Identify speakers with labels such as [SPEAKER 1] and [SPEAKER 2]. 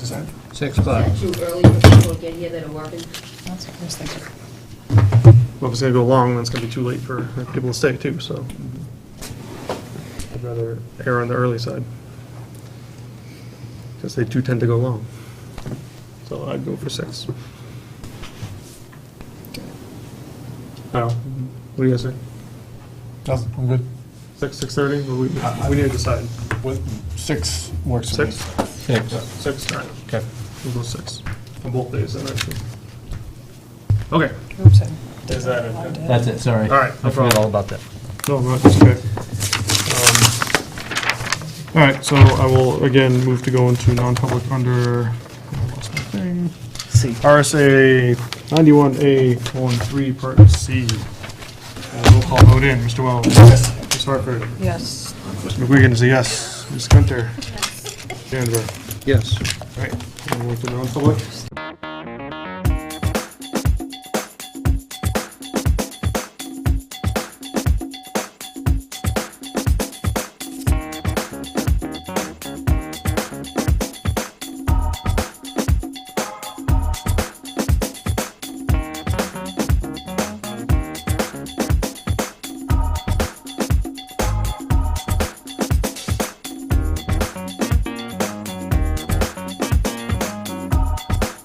[SPEAKER 1] sorry.
[SPEAKER 2] Six o'clock.
[SPEAKER 3] Is that too early for people to get here that are working?
[SPEAKER 4] That's what I was thinking.
[SPEAKER 1] Well, if it's gonna go long, then it's gonna be too late for people to stay too, so. I'd rather err on the early side. Because they do tend to go long. So I'd go for six. I don't, what do you guys think?
[SPEAKER 5] No, I'm good.
[SPEAKER 1] Six, six-thirty, we,
[SPEAKER 5] I- I-
[SPEAKER 1] we need to decide.
[SPEAKER 5] With, six works for me.
[SPEAKER 1] Six?
[SPEAKER 2] Six.
[SPEAKER 1] Six, nine.
[SPEAKER 5] Okay.
[SPEAKER 1] We'll go six, on both days, then, actually. Okay.
[SPEAKER 4] Oops, I
[SPEAKER 1] Is that it?
[SPEAKER 2] That's it, sorry.
[SPEAKER 1] All right, no
[SPEAKER 2] I forgot
[SPEAKER 1] problem.
[SPEAKER 2] all about that.
[SPEAKER 1] No, no, it's okay. Um, All right, so I will again move to go into non-public under I lost my thing. RSA 91A13, Part C. Uh, Roll call vote in, Mr. Wells. Yes. Ms. Hartford.
[SPEAKER 4] Yes.
[SPEAKER 1] Mr. McGuigan is a yes. Ms. Gunter. Yes. Danver.
[SPEAKER 2] Yes.
[SPEAKER 1] All right, and we'll go to non-public.